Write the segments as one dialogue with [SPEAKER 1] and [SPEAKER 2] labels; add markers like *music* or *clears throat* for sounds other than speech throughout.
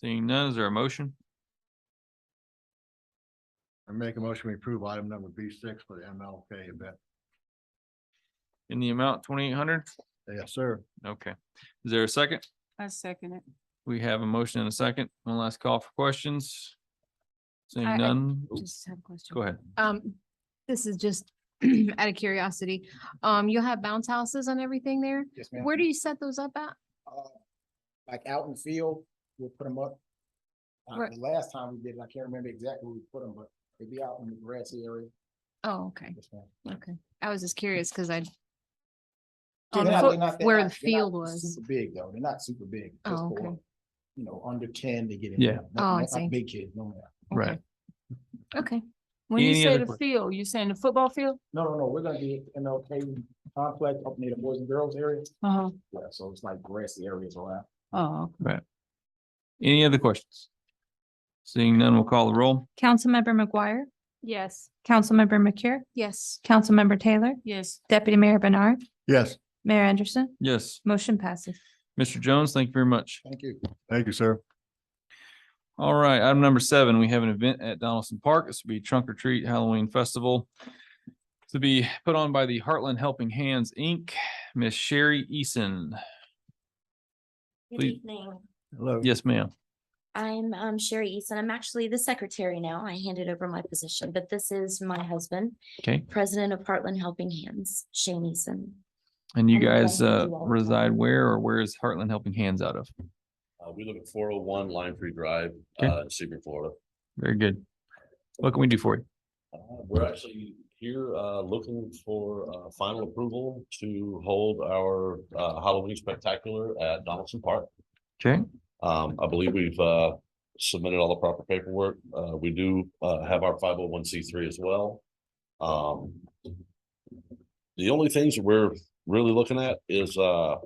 [SPEAKER 1] Seeing none, is there a motion?
[SPEAKER 2] I make a motion, we approve item number B six for the MLK event.
[SPEAKER 1] In the amount twenty-eight hundred?
[SPEAKER 2] Yes, sir.
[SPEAKER 1] Okay. Is there a second?
[SPEAKER 3] I second it.
[SPEAKER 1] We have a motion and a second. One last call for questions.
[SPEAKER 4] I- I
[SPEAKER 1] Seeing none, oh,
[SPEAKER 4] Just have a question.
[SPEAKER 1] go ahead.
[SPEAKER 4] Um, this is just *clears throat* out of curiosity. Um, you'll have bounce houses and everything there?
[SPEAKER 5] Yes, ma'am.
[SPEAKER 4] Where do you set those up at?
[SPEAKER 5] Uh, Like out in the field, we'll put them up. Uh,
[SPEAKER 4] Right.
[SPEAKER 5] the last time we did, it, I can't remember exactly where we put them, but they'd be out in the grassy area.
[SPEAKER 4] Oh, okay,
[SPEAKER 5] Yes, ma'am.
[SPEAKER 4] okay. I was just curious because I,
[SPEAKER 5] They're
[SPEAKER 4] Didn't
[SPEAKER 5] not-
[SPEAKER 4] put
[SPEAKER 5] Oh, they're not- they're
[SPEAKER 4] where
[SPEAKER 5] not-
[SPEAKER 4] the
[SPEAKER 5] they're not
[SPEAKER 4] field was.
[SPEAKER 5] Super big though, they're not super big.
[SPEAKER 4] Oh,
[SPEAKER 5] just
[SPEAKER 4] okay.
[SPEAKER 5] for, You know, under ten to get it.
[SPEAKER 1] Yeah.
[SPEAKER 5] done.
[SPEAKER 4] Oh, I
[SPEAKER 5] Not- not
[SPEAKER 4] see.
[SPEAKER 5] Big kids, no, ma'am.
[SPEAKER 1] Right.
[SPEAKER 4] okay.
[SPEAKER 3] When you
[SPEAKER 1] Any
[SPEAKER 3] say
[SPEAKER 1] other
[SPEAKER 3] the
[SPEAKER 1] que-
[SPEAKER 3] field, you saying the football field?
[SPEAKER 5] no, no, no, we're gonna be MLK complex up near the boys and girls area.
[SPEAKER 3] Uh-huh.
[SPEAKER 5] Yeah, so it's like grassy areas around.
[SPEAKER 3] Oh,
[SPEAKER 1] Any other questions? Seeing none, we'll call the roll.
[SPEAKER 6] Councilmember McGuire,
[SPEAKER 3] yes.
[SPEAKER 6] Councilmember McCure,
[SPEAKER 4] Yes,
[SPEAKER 6] Councilmember Taylor,
[SPEAKER 3] Yes,
[SPEAKER 6] Deputy Mayor Bernard,
[SPEAKER 2] Yes,
[SPEAKER 6] Mayor Anderson,
[SPEAKER 1] Yes,
[SPEAKER 6] motion passes.
[SPEAKER 1] Mr. Jones, thank you very much.
[SPEAKER 5] Thank you.
[SPEAKER 2] thank you, sir.
[SPEAKER 1] All right, item number seven, we have an event at Donaldson Park. This will be Trunk or Treat Halloween Festival. To be put on by the Heartland Helping Hands, Inc., Miss Sherry Eason.
[SPEAKER 7] Good
[SPEAKER 1] Please-
[SPEAKER 7] evening.
[SPEAKER 2] Hello.
[SPEAKER 1] Yes, ma'am.
[SPEAKER 7] I'm um, Sherry Easton. I'm actually the secretary now. I handed over my position, but this is my husband,
[SPEAKER 1] Okay,
[SPEAKER 7] president of Heartland Helping Hands, Shane Easton.
[SPEAKER 1] and you
[SPEAKER 7] I'm glad
[SPEAKER 1] guys
[SPEAKER 7] to
[SPEAKER 1] uh
[SPEAKER 7] do all of that.
[SPEAKER 1] reside where or where is Heartland Helping Hands out of?
[SPEAKER 8] Uh, we live at four oh one Lime Tree Drive,
[SPEAKER 1] Okay.
[SPEAKER 8] uh, Sebring, Florida.
[SPEAKER 1] Very good. What can we do for you?
[SPEAKER 8] Uh, we're actually here, uh, looking for, uh, final approval to hold our, uh, Halloween spectacular at Donaldson Park.
[SPEAKER 1] Okay,
[SPEAKER 8] Um, I believe we've, uh, submitted all the proper paperwork. Uh, we do, uh, have our five oh one C three as well. Um. The only things that we're really looking at is, uh.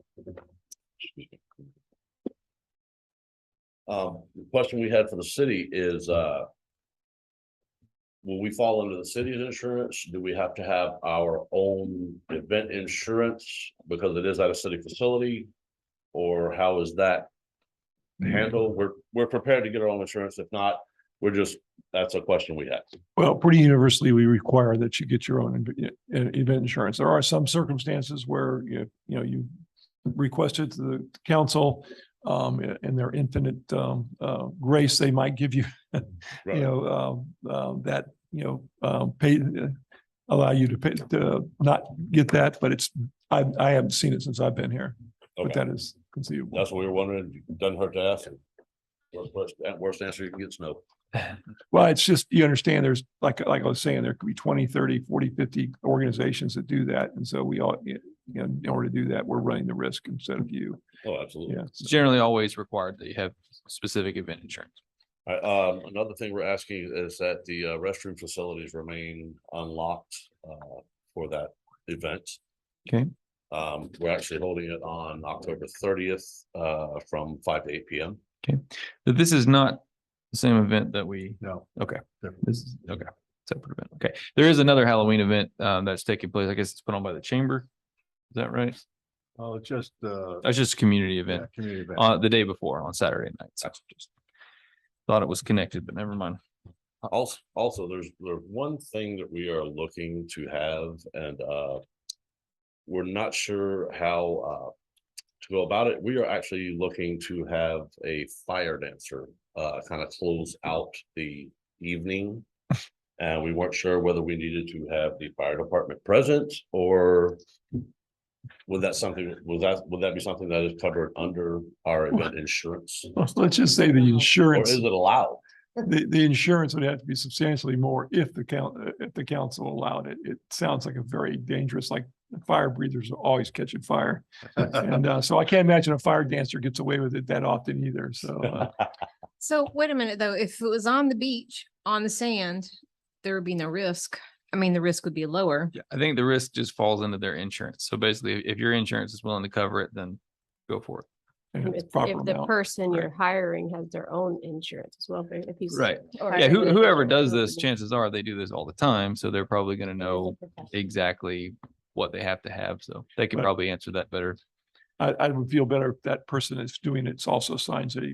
[SPEAKER 8] Um, the question we had for the city is, uh. Will we fall under the city's insurance? Do we have to have our own event insurance because it is at a city facility? Or how is that handle. We're, we're prepared to get our own insurance. If not, we're just, that's a question we have.
[SPEAKER 9] Well, pretty universally, we require that you get your own inv- e- event insurance. There are some circumstances where you, you know, you requested to the council um, in their infinite um, uh, grace, they might give you, *laughs* you
[SPEAKER 8] Right.
[SPEAKER 9] know, um, um, that, you know, um, pay, uh, allow you to pay, to not get that, but it's, I, I haven't seen it since I've been here, but
[SPEAKER 8] Okay,
[SPEAKER 9] that is conceivable.
[SPEAKER 8] that's what we were wondering. Doesn't hurt to ask. Worst- Worst, at worst answer you can get is no.
[SPEAKER 9] Well, it's just, you understand, there's, like, like I was saying, there could be 20, 30, 40, 50 organizations that do that, and so we all, you know, in order to do that, we're running the risk instead of you,
[SPEAKER 8] Oh, absolutely.
[SPEAKER 9] yeah.
[SPEAKER 1] it's generally always required that you have specific event insurance.
[SPEAKER 8] All right, Um, another thing we're asking is that the uh, restroom facilities remain unlocked, uh, for that event.
[SPEAKER 1] Okay.
[SPEAKER 8] Um, we're actually holding it on October thirtieth, uh, from five to eight P M.
[SPEAKER 1] But this is not the same event that we,
[SPEAKER 2] No,
[SPEAKER 1] okay, this is, okay, separate event. Okay, there is another Halloween event um that's taking place. I guess it's put on by the chamber. Is that right?
[SPEAKER 2] oh, it's just, uh,
[SPEAKER 1] That's just a community
[SPEAKER 2] yeah,
[SPEAKER 1] event
[SPEAKER 2] community event.
[SPEAKER 1] uh the day before on Saturday night. So just Thought it was connected, but never mind.
[SPEAKER 8] Also, also, there's, there's one thing that we are looking to have and, uh. We're not sure how, uh, to go about it. We are actually looking to have a fire dancer, uh, kind of close out the evening. And we weren't sure whether we needed to have the fire department present or. Would that something, would that, would that be something that is covered under our event insurance?
[SPEAKER 9] *laughs* Let's just say the
[SPEAKER 8] Or
[SPEAKER 9] insurance,
[SPEAKER 8] is it allowed?
[SPEAKER 9] the, the insurance would have to be substantially more if the coun, uh, if the council allowed it. It sounds like a very dangerous, like, fire breathers are always catching fire. And, uh, so I can't imagine a fire dancer gets away with it that often either, so, uh,
[SPEAKER 10] *laughs*
[SPEAKER 4] So wait a minute, though. If it was on the beach, on the sand, there would be no risk. I mean, the risk would be lower.
[SPEAKER 1] Yeah, I think the risk just falls into their insurance. So basically, if your insurance is willing to cover it, then go for it.
[SPEAKER 9] and it's
[SPEAKER 10] If
[SPEAKER 9] proper
[SPEAKER 10] if the
[SPEAKER 9] amount.
[SPEAKER 10] person
[SPEAKER 1] Right.
[SPEAKER 10] you're hiring has their own insurance as well, if he's.
[SPEAKER 1] Right.
[SPEAKER 10] or
[SPEAKER 1] Yeah, who-
[SPEAKER 10] if
[SPEAKER 1] whoever
[SPEAKER 10] they're-
[SPEAKER 1] does this, chances are they do this all the time, so they're probably gonna know exactly what they have to have, so they could
[SPEAKER 9] Right.
[SPEAKER 1] probably answer that better.
[SPEAKER 9] I, I would feel better if that person that's doing it's also signs a